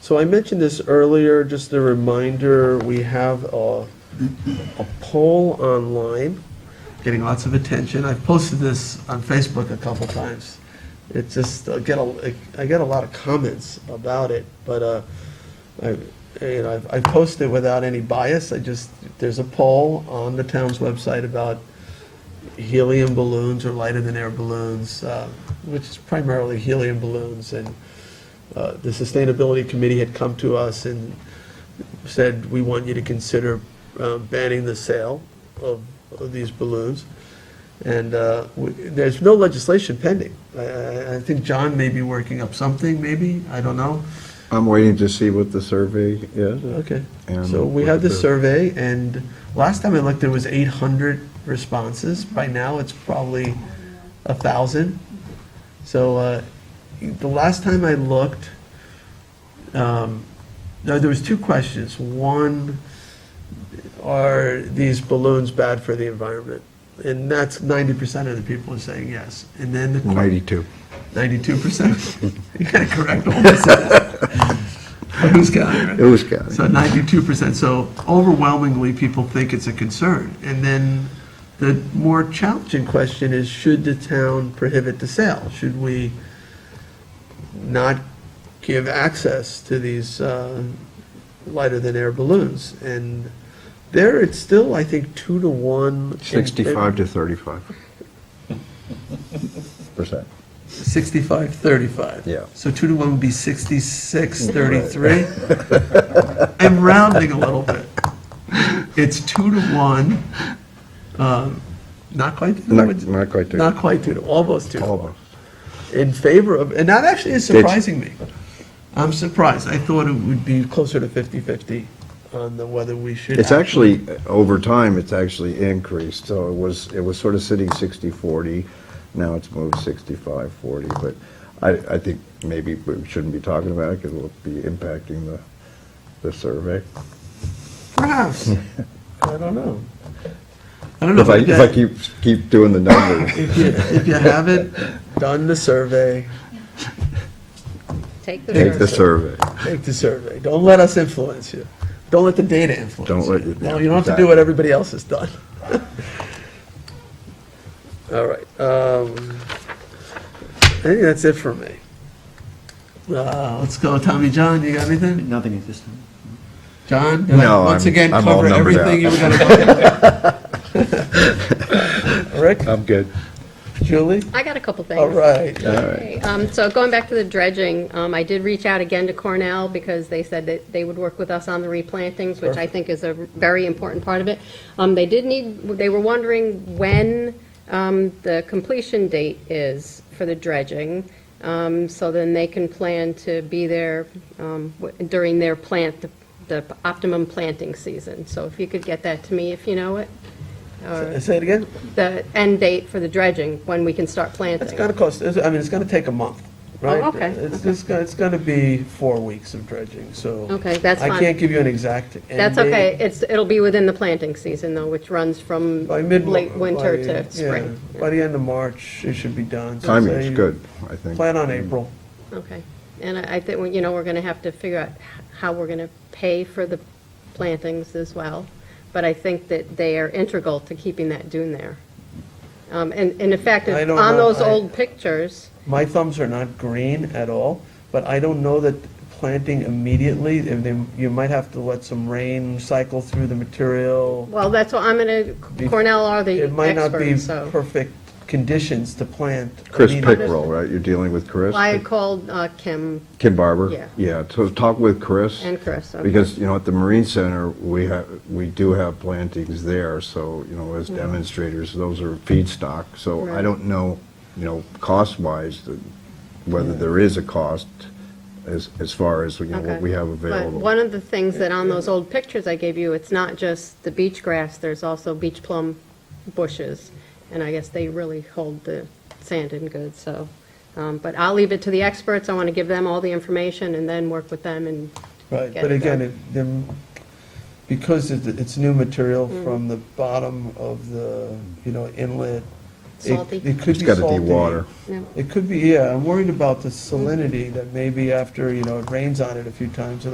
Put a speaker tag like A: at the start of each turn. A: So I mentioned this earlier, just a reminder, we have a, a poll online, getting lots of attention. I've posted this on Facebook a couple times. It's just, I get a, I get a lot of comments about it, but, uh, I, you know, I posted without any bias. I just, there's a poll on the town's website about helium balloons or lighter-than-air balloons, uh, which is primarily helium balloons, and uh, the Sustainability Committee had come to us and said, we want you to consider uh, banning the sale of of these balloons. And uh, we- there's no legislation pending. I- I I think John may be working up something, maybe, I don't know.
B: I'm waiting to see what the survey is.
A: Okay,
B: And
A: so we
B: what
A: have
B: the-
A: this survey, and last time I looked, there was eight hundred responses. By now, it's probably a thousand. So, uh, the last time I looked, um, no, there was two questions. One, are these balloons bad for the environment? And that's ninety percent of the people are saying yes. And then the que-
B: Ninety-two.
A: 92%. You gotta correct all this. Who's counting, right?
B: It was counting.
A: So 92%, so overwhelmingly, people think it's a concern. And then the more challenging question is, should the town prohibit the sale? Should we not give access to these uh, lighter-than-air balloons? And there, it's still, I think, two to one. in-
B: Sixty-five to thirty-five. Percent.
A: 65, 35.
B: Yeah.
A: So two to one would be 66, 33. I'm rounding a little bit. It's two to one, um, not quite. two to
B: Not-
A: one,
B: not quite two.
A: Not quite two, to- almost two to one.
B: Almost.
A: In favor of, and that actually is
B: Did you-
A: surprising me. I'm surprised. I thought it would be closer to 50/50 on the whether we should.
B: It's actually, over time, it's actually increased, so it was, it was sort of sitting 60/40, now it's moved 65/40, but I, I think maybe we shouldn't be talking about it, because it'll be impacting the, the survey.
A: Perhaps. I don't know. I don't know.
B: If I,
A: but
B: if
A: that-
B: I keep, keep doing the numbers,
A: If you, if you haven't done the survey,
C: Take the
B: take the
C: survey.
B: survey.
A: take the survey. Don't let us influence you. Don't let the data influence you.
B: Don't let you-
A: No,
B: yeah,
A: you don't have to
B: exactly.
A: do what everybody else has done. All right. um, I think that's it for me. Uh, Let's go, Tommy John, you got anything?
D: Nothing at this time.
A: John? did I
B: No,
A: Once
B: I'm-
A: again,
B: I'm all
A: cover
B: numbered out.
A: everything you were going to look at. Rick,
B: I'm good.
A: Julie?
C: I got a couple things.
A: All right.
B: All right.
C: Okay, um, So going back to the dredging, um, I did reach out again to Cornell because they said that they would work with us on the replantings, which I
A: Perfect.
C: think is a very important part of it. Um, They did need, they were wondering when um, the completion date is for the dredging, um, so then they can plan to be there um, w- during their plant, the optimum planting season. So if you could get that to me, if you know it, or
A: Say it again?
C: the end date for the dredging, when we can start planting.
A: It's gonna cost, it's- I mean, it's gonna take a month, right?
C: Oh, okay,
A: It's just, go- it's gonna be four weeks of dredging, so.
C: Okay, that's
A: I
C: fine.
A: can't give you an exact end
C: That's
A: date.
C: okay, it's, it'll be within the planting season though, which runs from
A: By mid.
C: late winter
A: by-
C: to spring.
A: yeah, By the end of March, it should be done. So
B: Timing's
A: say
B: good, I think.
A: Plan on April.
C: Okay, and I I think, we- you know, we're gonna have to figure out how we're gonna pay for the plantings as well, but I think that they are integral to keeping that dune there. Um, And, and in fact,
A: I don't
C: on
A: know,
C: those
A: I-
C: old pictures,
A: My thumbs are not green at all, but I don't know that planting immediately, and then you might have to let some rain cycle through the material.
C: well, that's what I'm gonna,
A: Be-
C: Cornell are the
A: It might not be
C: experts, so.
A: perfect conditions to plant.
B: Chris
A: immediately.
B: Pickrell, right, you're dealing with Chris?
C: I had called uh, Kim
B: Kim Barber?
C: Yeah.
B: Yeah, so talk with Chris.
C: and Chris. okay.
B: Because, you know, at the Marine Center, we have, we do have plantings there, so, you know, as demonstrators, those are feedstock. So I
C: Hmm. Right.
B: don't know, you know, cost-wise, the- whether
C: Hmm.
B: there is a cost as, as far as, you know,
C: Okay.
B: what we have
C: But
B: available.
C: one of the things that on those old pictures I gave you, it's not just the beach grass, there's also beach plum bushes. And I guess they really hold the sand in good, so. um, But I'll leave it to the experts. I want to give them all the information and then work with them and,
A: Right,
C: get
A: but
C: it
A: again,
C: done.
A: it- them,
C: Mm-hmm.
A: because it- it's new material from the bottom of the, you know, inlet It-
C: salty.
A: It could
B: It's
A: be
B: gotta
A: salty.
B: de-water.
C: No. Mm-hmm.
A: It could be, yeah, I'm worried about the salinity that maybe after, you know, it rains on it a few times, it'll